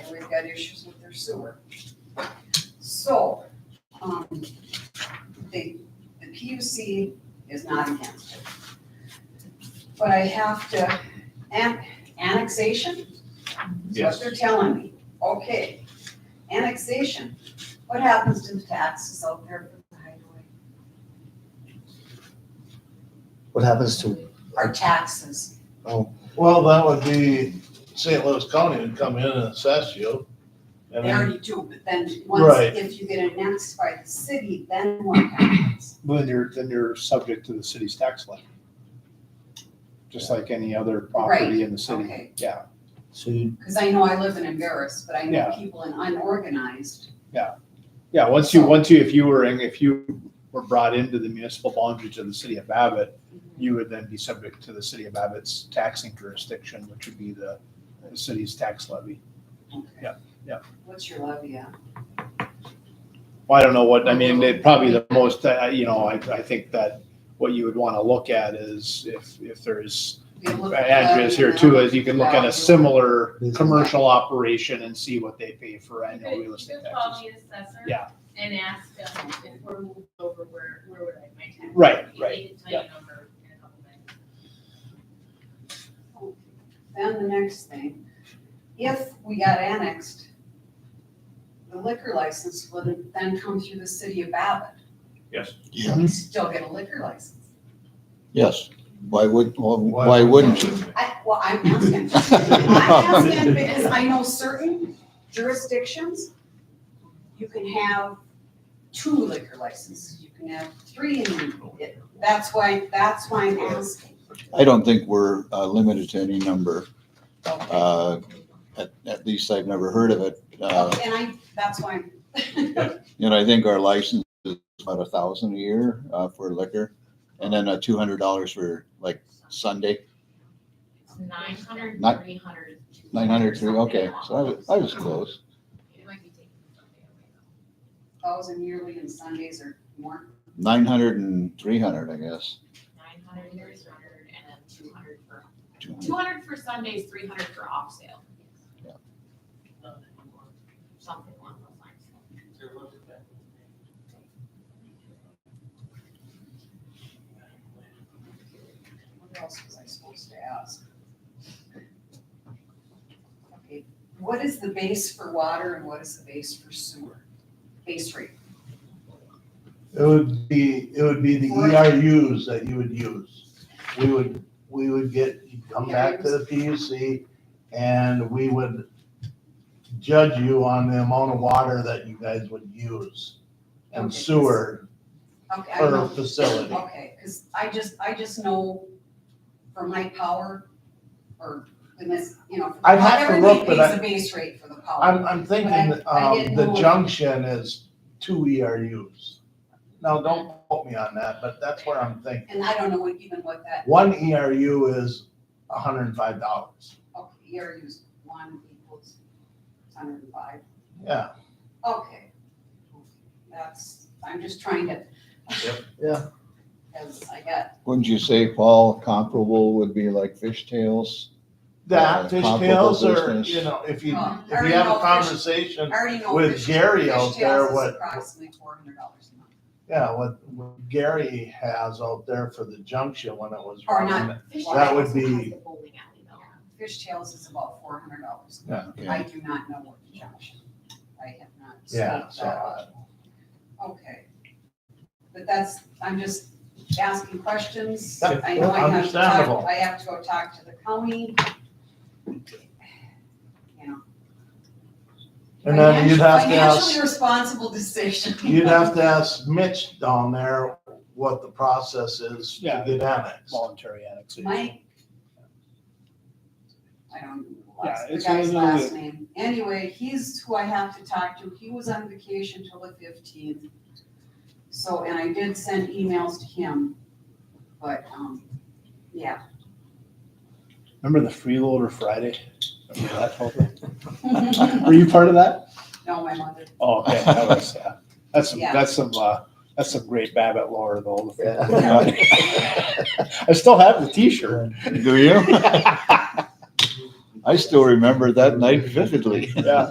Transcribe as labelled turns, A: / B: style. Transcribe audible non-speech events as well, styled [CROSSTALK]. A: and we've got issues with their sewer. So, um, the, the PUC is not against it. But I have to, an- annexation? Is what
B: Yes.
A: they're telling me, okay. Annexation, what happens to the taxes out there for the highway?
C: What happens to,
A: Our taxes,
D: Well, that would be, St. Louis County would come in and assess you. And
A: they
D: then,
A: already do, but then once,
D: Right.
A: if you get annexed by the city, then what happens?
E: Well, then you're, then you're subject to the city's tax levy. Just like any other property in the city.
A: Okay.
E: Yeah,
C: so you,
A: Because I know I live in Embarrass, but I know
E: Yeah.
A: people in unorganized.
E: yeah, once you, once you, if you were, in- if you were brought into the municipal boundaries of the city of Abbott, you would then be subject to the city of Abbott's taxing jurisdiction, which would be the the city's tax levy. Yeah, yeah.
A: What's your levy at?
E: Well, I don't know what, I mean, it probably the most, uh, you know, I, I think that what you would want to look at is if, if there's
A: We look at
E: address
A: levy
E: here
A: now.
E: too, is you can look at a similar
C: Business.
E: commercial operation and see what they pay for
F: You
E: annual
F: could-
E: real estate
F: You could call
E: taxes.
F: me an assessor.
E: Yeah.
F: And ask them if we're moved over, where, where would I, my tax?
E: Right,
F: You
E: right,
F: need to tell you number in a couple minutes.
A: Then the next thing, if we got annexed, the liquor license would then come through the city of Babbitt.
B: Yes.
C: Yeah.
E: Mm-hmm.
A: We Still get a liquor license.
C: yes, why would, well, why [LAUGHS] wouldn't you?
A: I, well, I'm asking. I'm asking because I know certain jurisdictions, you can have two liquor licenses, you can have three, and that's why, that's why I'm asking.
C: I don't think we're uh, limited to any number.
A: Okay.
C: Uh, At, at least I've never heard of it. Uh,
A: And I, that's why, I'm- [LAUGHS]
C: You know, I think our license is about a thousand a year uh, for liquor. And then uh, two hundred dollars for like Sunday,
G: Nine hundred,
C: Nine-
G: three hundred.
C: nine hundred three, okay, so I was, I was close.
F: It might be taking something away.
A: thousand yearly and Sundays are more.
C: Nine hundred and three hundred, I guess.
G: Nine hundred, three hundred, and then two hundred for,
C: 200.
G: two hundred for Sundays, three hundred for off sale.
C: Yeah.
G: Something along those lines.
A: What else was I supposed to ask? Okay, What is the base for water and what is the base for sewer? Base rate,
D: it would be, it would be the ERUs that you would use. We would, we would get, you'd come back to the PUC and we would judge you on the amount of water that you guys would use and
A: Okay.
D: sewer
A: okay, I
D: per
A: know,
D: facility.
A: okay, because I just, I just know for my power or the mis, you know.
D: I'd have to look, but
A: Everybody
D: I-
A: pays the base rate for the power.
D: I'm, I'm
A: I-
D: thinking,
A: I didn't
D: um, the
A: know.
D: junction is two ERUs. Now, don't quote me on that, but that's what I'm thinking.
A: And I don't know what- even what that,
D: One ERU is hundred and five dollars.
A: okay, E ERU's one equals hundred and five.
D: Yeah,
A: Okay. That's, I'm just trying to. [LAUGHS]
B: Yep.
D: Yeah.
A: Because I got,
C: Wouldn't you say, Paul, comparable would be like fishtails?
D: that
C: Yeah,
D: fishtails
C: comparable
D: are,
C: business.
D: you know, if you,
A: Well,
D: if
A: Oh, I
D: you have
A: know
D: a
A: fish- I
D: conversation,
A: already know.
D: With
A: fish-
D: Gary out there,
A: fishtails is
D: what-
A: Approximately four hundred dollars a month.
D: yeah, what, what Gary has out there for the junction when it was.
A: Or
D: running,
A: not.
D: That would be-
G: Bowling alley
D: Um,
G: though.
A: Fishtails is about four hundred dollars. I
C: Okay.
A: do not know what the junction. I have not.
D: Yeah,
A: studied
D: so,
A: that.
D: uh,
A: Okay. But that's, I'm just asking questions.
D: Yeah,
A: I know I have to talk,
D: understandable.
A: I have to go talk to the county. You know.
D: And then you'd have to
A: Financially-
D: ask,
A: Financially responsible [LAUGHS] decision.
D: you'd have to ask Mitch down there what the process is to
E: Yeah.
D: get annexed.
E: Voluntary annexation.
A: Mike? I don't,
E: Yeah,
A: know the
E: it's
A: guy's
E: another-
A: last name. Anyway, he's who I have to talk to. He was on vacation till the fifteenth. So, and I did send emails to him, but, um, yeah. [LAUGHS]
E: Remember the freeloader Friday? Remember that whole thing?
A: No,
E: Were you part of that?
A: my mother,
E: Oh, okay, that was, uh, that's some,
A: Yeah.
E: that's some, uh, that's some great Babbitt lore though. the
C: Yeah.
E: freeloader. [LAUGHS] I still have the t-shirt. [LAUGHS]
C: [LAUGHS] Do you? I still remember that night vividly.
E: Yeah.